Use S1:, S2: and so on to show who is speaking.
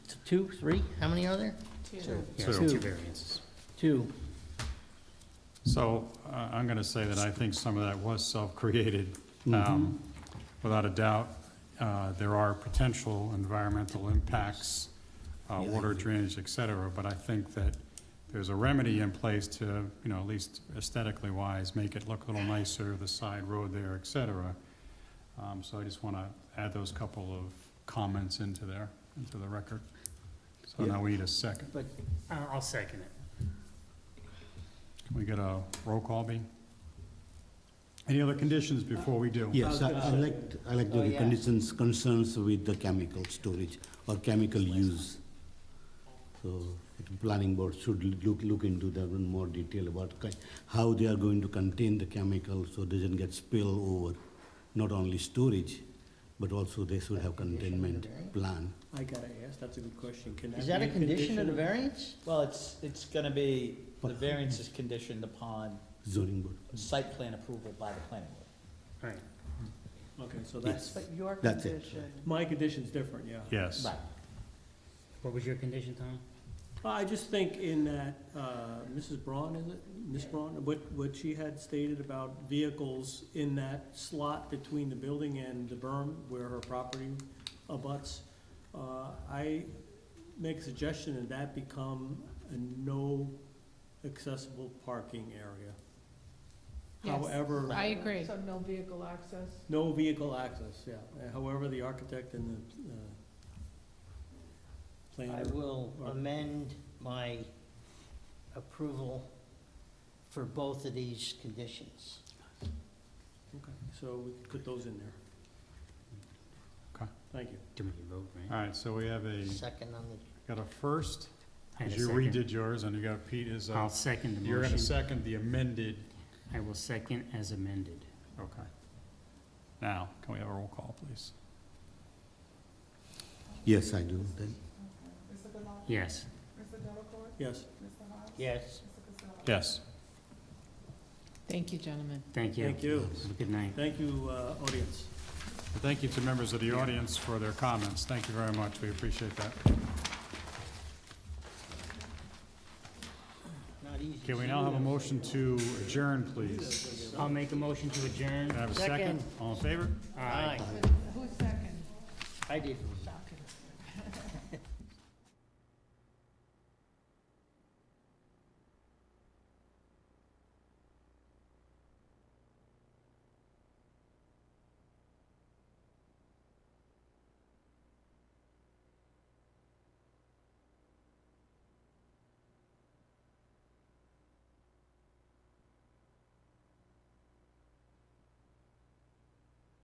S1: two, three, how many are there?
S2: Two.
S3: Yeah,
S1: Two.
S3: two variances.
S1: Two.
S4: So I- I'm going to say that I think some of that was self-created. Um, Without a doubt, uh, there are potential environmental impacts, uh, water drainage, et cetera, but I think that there's a remedy in place to, you know, at least aesthetically wise, make it look a little nicer, the side road there, et cetera. Um, So I just want to add those couple of comments into there, into the record. So now we need a second.
S3: But uh, I'll second it.
S4: Can we get a roll call, B? Any other conditions before we do?
S5: Yes, I I like, to- I like
S1: Oh,
S5: the
S1: yeah.
S5: conditions, concerns with the chemical storage or chemical use. So the planning board should look, look into that in more detail about ki- how they are going to contain the chemical so doesn't get spill over, not only storage, but also they should have containment plan.
S6: I gotta ask, that's a good question. Can
S1: Is that
S6: be
S1: a condition of the variance?
S2: Well, it's, it's gonna be, the variance is conditioned upon
S5: Zoning board,
S2: site plan approval by the planning board.
S3: Right.
S6: Okay, so
S5: yes,
S6: that's,
S7: But your
S5: That's it.
S7: condition,
S6: my condition's different, yeah.
S4: Yes.
S3: What was your condition, Tom?
S6: Well, I just think in that, uh, Mrs. Braun, is it, Ms. Braun, what, what she had stated about vehicles in that slot between the building and the berm where her property abuts, uh, I make a suggestion that that become a no accessible parking area.
S8: Yes,
S6: However.
S8: I agree.
S7: so no vehicle access.
S6: No vehicle access, yeah. Uh, However, the architect and the uh,
S2: I
S6: planner,
S2: will
S6: Or-
S2: amend my approval for both of these conditions.
S6: so we could put those in there.
S4: Okay.
S6: Thank you.
S3: Do we vote, right?
S4: All right, so we have a,
S2: Second on the,
S4: got a first,
S3: I had a
S4: because you
S3: second.
S4: redid yours, and you got Pete is, uh,
S3: I'll second the
S4: you're gonna
S3: motion.
S4: second the amended,
S3: I will second as amended.
S4: okay. Now, can we have a roll call, please?
S5: yes, I do, then.
S3: Yes.
S6: Yes,
S2: yes,
S4: Yes.
S8: Thank you, gentlemen.
S3: Thank you.
S6: Thank you.
S3: Have a Good night.
S6: thank you, uh, audience.
S4: And Thank you to members of the audience for their comments. Thank you very much. We appreciate that.
S2: not easy.
S4: Okay, we now have a motion to adjourn, please.
S3: I'll make a motion to adjourn.
S4: Can I have a second? All in favor?
S3: Aye.
S7: Who's second?
S2: I did.